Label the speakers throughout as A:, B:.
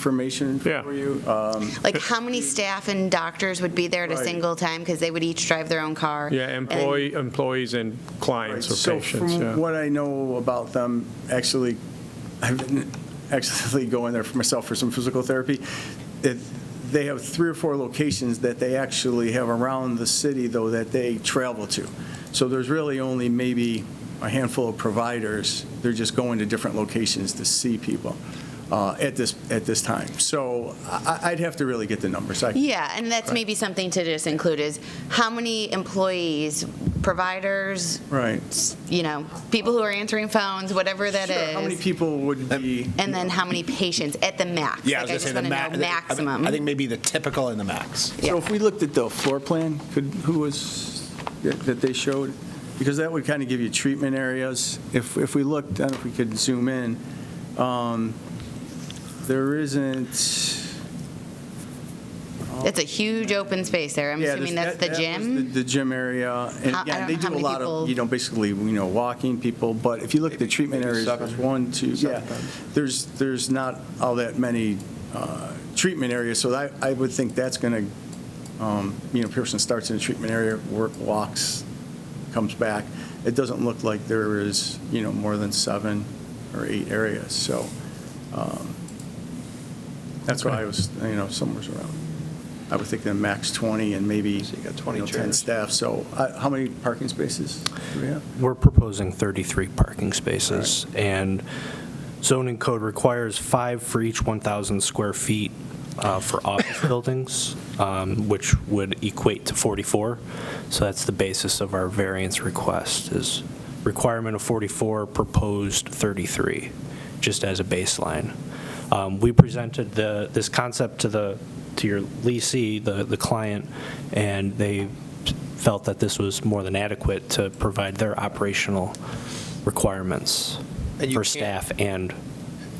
A: information
B: Yeah.
A: for you. Um,
C: Like, how many staff and doctors would be there at a
A: Right.
C: single time? Because they would each drive their own car.
B: Yeah,
C: And-
B: employee, employees and clients or
A: So
B: patients,
A: from
B: yeah.
A: what I know about them, actually, I've been actually going there for myself for some physical therapy. It- They have three or four locations that they actually have around the city, though, that they travel to. So there's really only maybe a handful of providers. They're just going to different locations to see people uh, at this, at this time. So I- I'd have to really get the numbers. I-
C: Yeah, and that's maybe something to just include is how many employees, providers,
A: Right.
C: you know, people who are answering phones, whatever that
A: Sure, How many
C: is.
A: people would be?
C: And then how many patients at the max?
D: Yeah, I
C: Like,
D: was
C: just
D: gonna say the
C: wanna know
D: ma- I think-
C: Maximum.
D: I think maybe the typical and the max.
A: So
C: Yeah.
A: if we looked at the floor plan, could, who was, that that they showed? Because that would kind of give you treatment areas. If, if we looked, I don't know if we could zoom in, um, there isn't.
C: It's a huge open space there. I'm
A: Yeah,
C: assuming
A: this-
C: that's the
A: that- that was
C: gym.
A: The the gym area. And
C: How- I
A: again,
C: don't
A: they
C: know how
A: do a
C: many
A: lot
C: people-
A: of, you know, basically, you know, walking people, but if you look at the treatment
E: maybe
A: areas,
E: seven.
A: there's one, two, yeah.
E: Seven.
A: There's, there's not all that many uh, treatment areas, so I, I would think that's going to, you know, person starts in a treatment area, work, walks, comes back. It doesn't look like there is, you know, more than seven or eight areas, so um, that's why I was, you know, somewhere around. I would think the max 20 and maybe,
E: So you got
A: you
E: 20
A: know, 10
E: chairs.
A: staff, so uh, how many parking spaces do we have?
F: We're proposing 33 parking spaces, and zoning code requires five for each 1,000 square feet uh, for office buildings, um, which would equate to 44. So that's the basis of our variance request, is requirement of 44, proposed 33, just as a baseline. Um, We presented the, this concept to the, to your leasee, the, the client, and they felt that this was more than adequate to provide their operational requirements
E: And you
F: for
E: can't-
F: staff and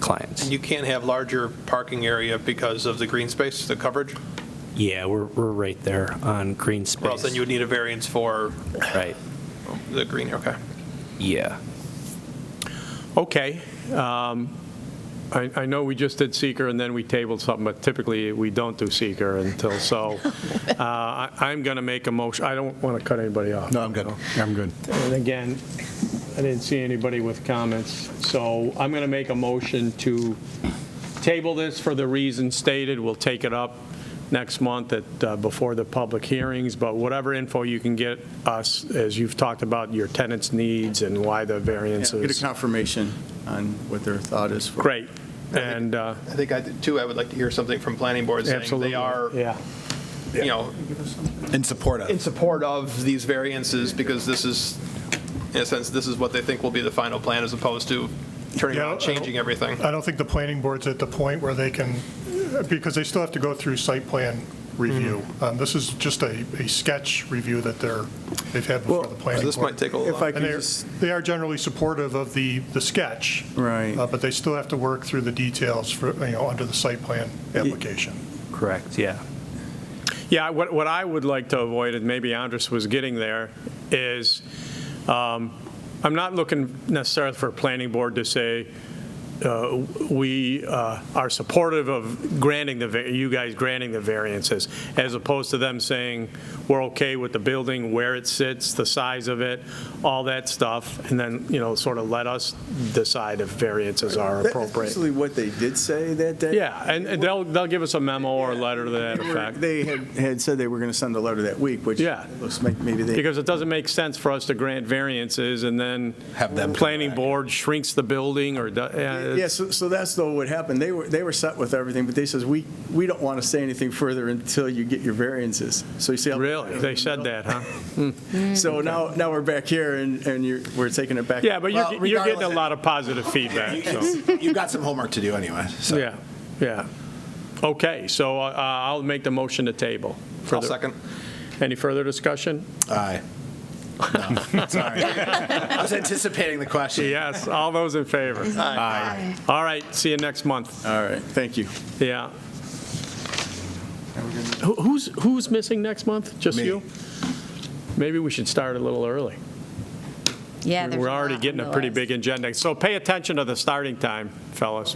F: clients.
E: And you can't have larger parking area because of the green space, the coverage,
F: Yeah, we're, we're right there on green
E: or else
F: space.
E: then you would need a variance for
F: Right,
E: the green, okay.
F: yeah.
B: Okay. um, I, I know we just did seeker and then we tabled something, but typically we don't do seeker until, so uh, I- I'm going to make a motion. I don't want to cut anybody off.
D: No, I'm good. I'm good.
B: And again, I didn't see anybody with comments, so I'm going to make a motion to table this for the reason stated. We'll take it up next month at, uh, before the public hearings, but whatever info you can get us, as you've talked about your tenants' needs and why the
A: Get a
B: variances.
A: confirmation on what their thought is for.
B: Great. And uh,
E: I think, I did too, I would like to hear something from planning board saying
B: absolutely.
E: they are,
B: Yeah.
E: you know,
D: In support
E: in
D: of.
E: support of these variances because this is, in a sense, this is what they think will be the final plan as opposed to turning
G: Yeah, I
E: around,
G: don't-
E: changing everything.
G: I don't think the planning board's at the point where they can, because they still have to go through site plan review.
E: Mm-hmm.
G: Um, This is just a, a sketch review that they're, they've had before
A: Well,
G: the
E: So
G: planning board.
E: this might take
A: If I
E: a little,
G: And
A: could
G: they're,
A: just,
G: they are generally supportive of the, the sketch.
A: Right.
G: uh, But they still have to work through the details for, you know, under the site plan application.
F: Correct, yeah.
B: Yeah, what, what I would like to avoid, and maybe Andres was getting there, is um, I'm not looking necessarily for a planning board to say, uh, we uh, are supportive of granting the, va- you guys granting the variances, as opposed to them saying, we're okay with the building, where it sits, the size of it, all that stuff, and then, you know, sort of let us decide if variances are
A: that's
B: appropriate.
A: basically what they did say that day.
B: Yeah, and and they'll, they'll give us a memo or a letter to that
A: They were-
B: effect.
A: They had, had said they were going to send a letter that week, which
B: Yeah.
A: looks like maybe they,
B: Because it doesn't make sense for us to grant variances and then
D: Have them come
B: planning
D: back.
B: board shrinks the building or, do- yeah,
A: yeah,
B: it's-
A: so, so that's though what happened. They were, they were set with everything, but they says, we, we don't want to say anything further until you get your variances. So you see. how-
B: really, they said that, huh?
A: So now, now we're back here and, and you're, we're taking it back.
B: Yeah, but
D: Well,
B: you're, you're getting a
D: regardless-
B: lot of positive feedback, so,
D: You've got some homework to do anyway, so.
B: yeah, yeah. Okay, so uh, I'll make the motion to table. for
E: I'll
B: the-
E: second.
B: Any further discussion?
D: Aye. No, sorry. I was anticipating the question.
B: Yes, all those in favor?
D: Aye.
B: All right, see you next month,
A: All right, thank you.
B: yeah. Who- Who's, who's missing next month? Just
D: Me.
B: you? Maybe we should start a little early.
C: Yeah, there's
B: We're
C: a
B: already
C: lot
B: getting
C: on
B: a
C: the
B: pretty
C: list.
B: big agenda. So pay attention to the starting time, fellas.